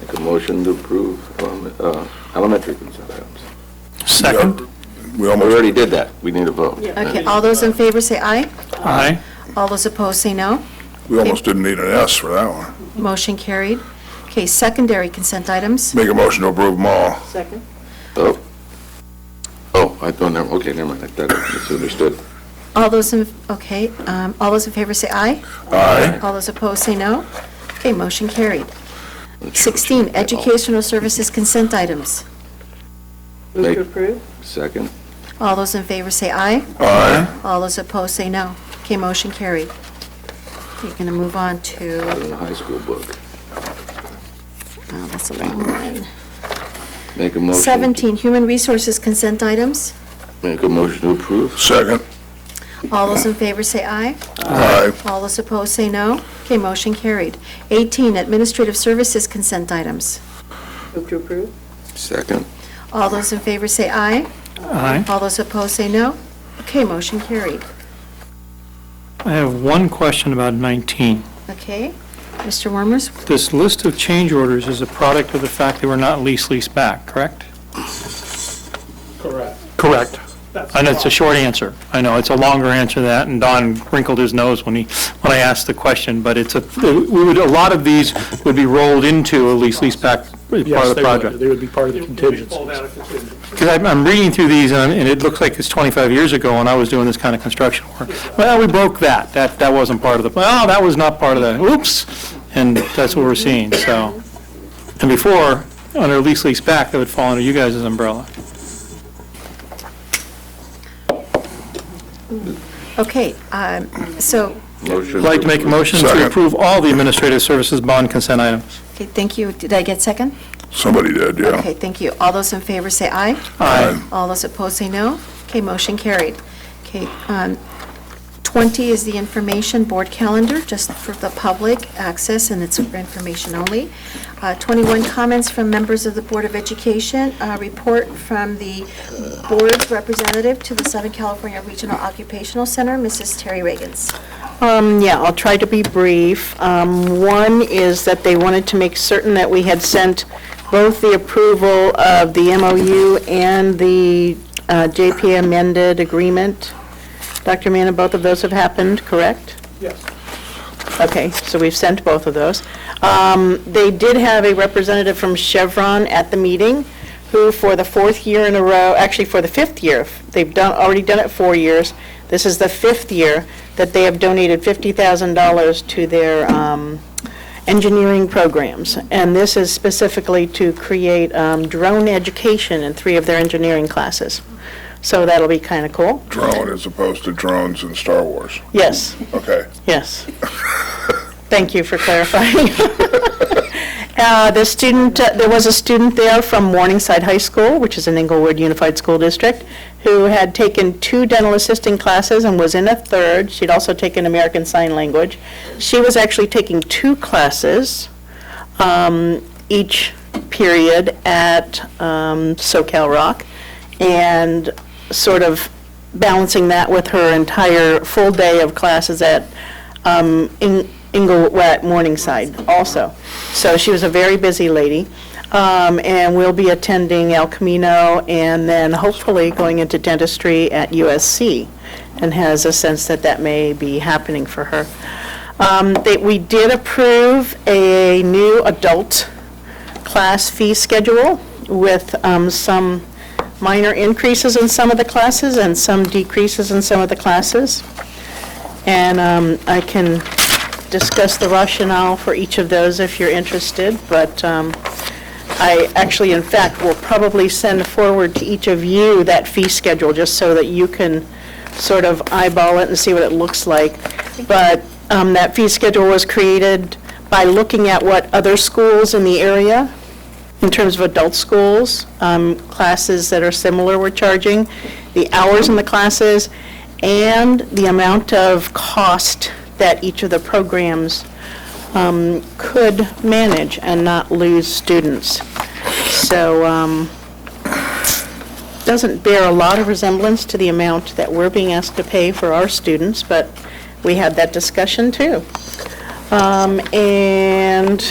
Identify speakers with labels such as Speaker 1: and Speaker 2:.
Speaker 1: Make a motion to approve um, uh, elementary consent items.
Speaker 2: Second.
Speaker 3: We
Speaker 1: We
Speaker 3: almost,
Speaker 1: already did that. We need a vote.
Speaker 4: Okay, all those in favor say aye.
Speaker 2: Aye.
Speaker 4: All those opposed say no.
Speaker 3: we almost didn't need an S for that one.
Speaker 4: Motion carried. Okay, secondary consent items.
Speaker 3: Make a motion to approve them all.
Speaker 5: Second?
Speaker 1: Oh. Oh, I don't know. Okay, never mind. That misunderstood.
Speaker 4: All those in, okay, um, all those in favor say aye.
Speaker 3: Aye.
Speaker 4: All those opposed say no. Okay, motion carried. 16, educational services consent items.
Speaker 5: Move
Speaker 1: Make-
Speaker 5: to approve?
Speaker 1: Second.
Speaker 4: All those in favor say aye.
Speaker 3: Aye.
Speaker 4: All those opposed say no. Okay, motion carried. You're going to move on to
Speaker 1: Out of the high school book.
Speaker 4: Oh, that's a long one.
Speaker 1: Make a motion.
Speaker 4: 17, human resources consent items.
Speaker 1: Make a motion to approve.
Speaker 3: Second.
Speaker 4: All those in favor say aye.
Speaker 3: Aye.
Speaker 4: All those opposed say no. Okay, motion carried. 18, administrative services consent items.
Speaker 5: Move to approve?
Speaker 1: Second.
Speaker 4: All those in favor say aye.
Speaker 2: Aye.
Speaker 4: All those opposed say no. Okay, motion carried.
Speaker 2: I have one question about 19.
Speaker 4: Okay, Mr. Wormers?
Speaker 2: This list of change orders is a product of the fact that we're not lease lease back, correct?
Speaker 6: Correct.
Speaker 2: Correct. And it's a short answer. I know, it's a longer answer than that, and Don wrinkled his nose when he, when I asked the question, but it's a, we would, a lot of these would be rolled into a lease lease back as part of
Speaker 6: Yes,
Speaker 2: the
Speaker 6: they would,
Speaker 2: project.
Speaker 6: they would be part of the contingency.
Speaker 2: Because I'm, I'm reading through these, and I'm- and it looks like it's 25 years ago when I was doing this kind of construction work. Well, we broke that, that, that wasn't part of the, well, that was not part of the, oops, and that's what we're seeing, so. And before, under lease lease back, that would fall under you guys' umbrella.
Speaker 4: Okay, um, so,
Speaker 1: Motion.
Speaker 2: I'd like to make a motion
Speaker 3: Second.
Speaker 2: to approve all the administrative services bond consent items.
Speaker 4: okay, thank you. Did I get second?
Speaker 3: Somebody did, yeah.
Speaker 4: Okay, thank you. All those in favor say aye.
Speaker 3: Aye.
Speaker 4: All those opposed say no. Okay, motion carried. Okay, um, 20 is the information board calendar, just for the public access, and it's for information only. Uh, 21, comments from members of the Board of Education, uh, report from the board representative to the Southern California Regional Occupational Center, Mrs. Terry Reagans.
Speaker 7: Um, yeah, I'll try to be brief. Um, one is that they wanted to make certain that we had sent both the approval of the MOU and the uh, JP amended agreement. Dr. Manna, both of those have happened, correct?
Speaker 6: Yes.
Speaker 7: Okay, so we've sent both of those. Um, They did have a representative from Chevron at the meeting, who for the fourth year in a row, actually for the fifth year, they've done, already done it four years, this is the fifth year that they have donated $50,000 to their um, engineering programs. And this is specifically to create um, drone education in three of their engineering classes. So that'll be kind of cool.
Speaker 3: Drone as opposed to drones in Star Wars.
Speaker 7: Yes.
Speaker 3: Okay.
Speaker 7: Yes. Thank you for clarifying. Uh, The student, uh, there was a student there from Morningside High School, which is an Inglewood Unified School District, who had taken two dental assisting classes and was in a third. She'd also taken American Sign Language. She was actually taking two classes um, each period at um, SoCal Rock, and sort of balancing that with her entire full day of classes at um, In- Inglewood, at Morningside also. So she was a very busy lady, um, and will be attending El Camino, and then hopefully going into dentistry at USC, and has a sense that that may be happening for her. Um, That we did approve a new adult class fee schedule with um, some minor increases in some of the classes and some decreases in some of the classes. And um, I can discuss the rationale for each of those if you're interested, but um, I actually, in fact, will probably send forward to each of you that fee schedule, just so that you can sort of eyeball it and see what it looks like. But um, that fee schedule was created by looking at what other schools in the area in terms of adult schools, um, classes that are similar we're charging, the hours in the classes, and the amount of cost that each of the programs um, could manage and not lose students. So, um, doesn't bear a lot of resemblance to the amount that we're being asked to pay for our students, but we had that discussion too. Um, And